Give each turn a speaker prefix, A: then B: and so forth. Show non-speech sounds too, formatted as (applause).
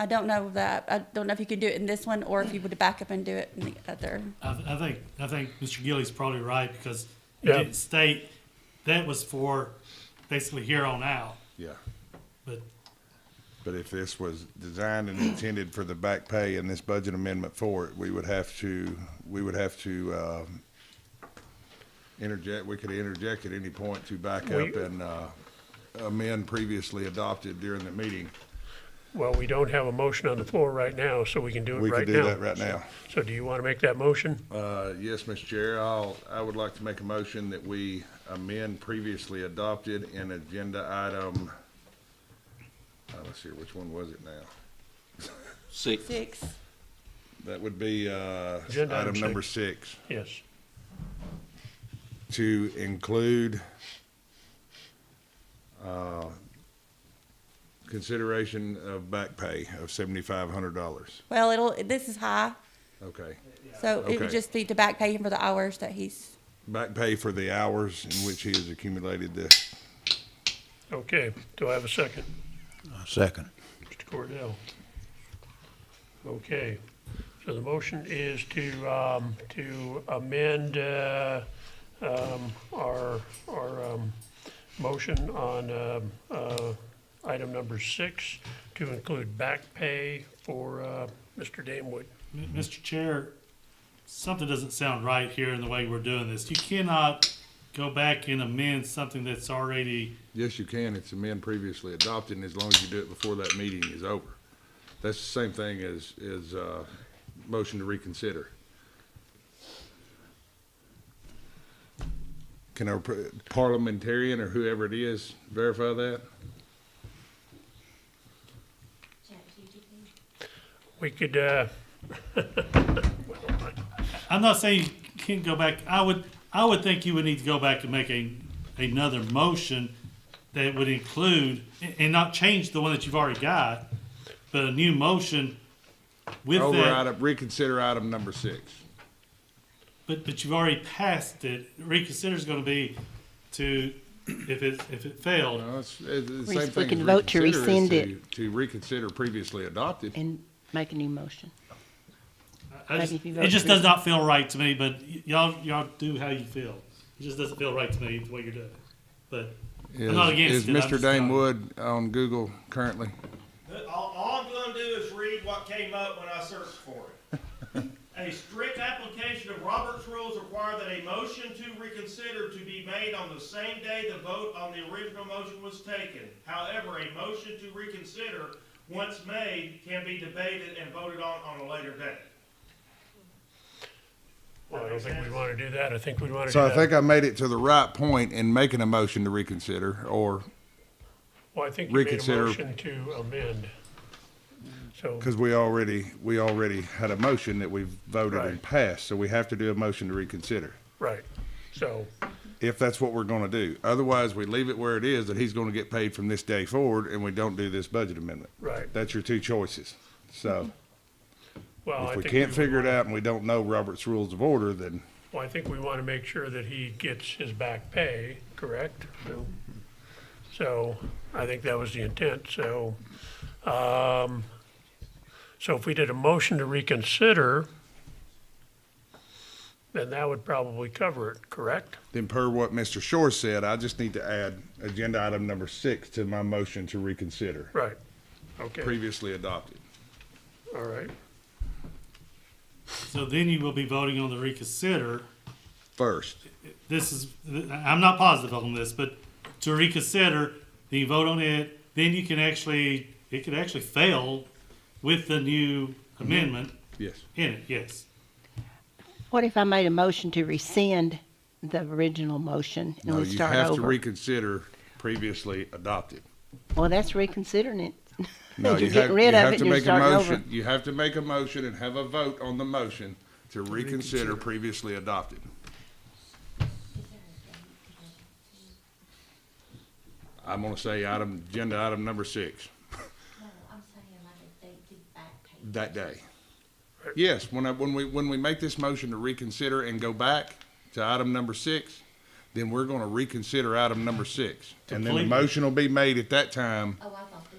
A: I don't know that, I don't know if you could do it in this one or if you would back up and do it in the other.
B: I, I think I think Mr. Gillies probably right because it
C: Yeah.
B: didn't state that was for basically here on out.
D: Yeah,
B: But
D: but if this was designed and intended for the back pay and this budget amendment for it, we would have to, we would have to, um, interject, we could interject at any point to back up
C: We-
D: and, uh, amend previously adopted during the meeting.
C: Well, we don't have a motion on the floor right now, so we can do it
D: We
C: right now.
D: could do that right now.
C: So do you want to make that motion?
D: Uh, yes, Mr. Chair, I'll, I would like to make a motion that we amend previously adopted in agenda item, uh, let's see, which one was it now?
E: Six.
A: Six.
D: That would be, uh,
C: Agenda item
D: item number six,
C: Yes.
D: to include, uh, consideration of back pay of seventy-five hundred dollars.
A: Well, it'll, this is high,
D: Okay.
A: so it would
D: Okay.
A: just be to back pay him for the hours that he's,
D: Back pay for the hours in which he has accumulated this.
C: Okay. Do I have a second?
F: Second.
C: Mr. Cordell? Okay. So the motion is to, um, to amend, uh, um, our, our, um, motion on, um, uh, item number six to include back pay for, uh, Mr. Damewood.
B: M- Mr. Chair, something doesn't sound right here in the way we're doing this. You cannot go back and amend something that's already
D: Yes, you can. It's amend previously adopted, and as long as you do it before that meeting is over. That's the same thing as, as, uh, motion to reconsider. Can our par- parliamentarian or whoever it is verify that?
C: We could, uh,
B: I'm not saying you can't go back. I would, I would think you would need to go back and make a, another motion that would include, and- and not change the one that you've already got, but a new motion with
D: Over
B: that.
D: item, reconsider item number six.
B: But, but you've already passed it. Reconsider is gonna be to, if it, if it failed.
D: No, it's, it's the
G: We-
D: same
G: we
D: thing
G: can
D: as
G: vote to
D: reconsider is
G: rescind
D: to, to reconsider previously adopted.
G: and make a new motion.
B: I just-
G: Maybe if you
B: It
G: vote
B: just
G: for-
B: does not feel right to me, but y- y'all, y'all do how you feel. It just doesn't feel right to me the way you're doing it. But I'm not
D: Is
B: against
D: is
B: it. I'm
D: Mr.
B: just not-
D: Dane Wood on Google currently?
H: All, all I'm gonna do is read what came up when I searched for it. A strict application of Robert's rules require that a motion to reconsider to be made on the same day the vote on the original motion was taken. However, a motion to reconsider, once made, can be debated and voted on on a later date.
C: well, I don't think we want to do that. I think we want to do
D: So I
C: that.
D: think I made it to the right point in making a motion to reconsider, or,
C: Well, I think you made a
D: reconsider-
C: motion to amend. So,
D: because we already, we already had a motion that we've voted and
C: Right.
D: passed, so we have to do a motion to reconsider,
C: right, so,
D: if that's what we're gonna do. Otherwise, we leave it where it is, that he's gonna get paid from this day forward, and we don't do this budget amendment.
C: Right.
D: That's your two choices. So
C: well, Oh, I
D: if we
C: think.
D: can't
C: we-
D: figure it out and we don't know Robert's Rules of Order, then
C: Well, I think we want to make sure that he gets his back pay, correct? So- So, I think that was the intent, so, um, so if we did a motion to reconsider, then that would probably cover it, correct?
D: Then per what Mr. Shore said, I just need to add agenda item number six to my motion to reconsider,
C: Right, okay,
D: previously adopted.
C: all right,
B: So then you will be voting on the reconsider.
D: First,
B: This is, I'm not positive on this, but to reconsider, then you vote on it, then you can actually, it could actually fail with the new amendment
D: yes.
B: in it, yes.
G: What if I made a motion to rescind the original motion and
D: No,
G: we
D: you
G: start
D: have to
G: over?
D: reconsider previously adopted.
G: Well, that's reconsidering it.
D: No,
G: (laughs) You're
D: you
G: getting
D: have,
G: rid
D: you
G: of
D: have
G: it
D: to
G: and you're
D: make a
G: starting over.
D: motion. You have to make a motion and have a vote on the motion to reconsider previously adopted. I'm gonna say item, agenda item number six.
I: No, I'm saying like if they give back pay.
D: that day. Yes, when I, when we, when we make this motion to reconsider and go back to item number six, then we're gonna reconsider item number six. And then the
B: Completely.
D: motion will be made at that time
I: Oh, I thought this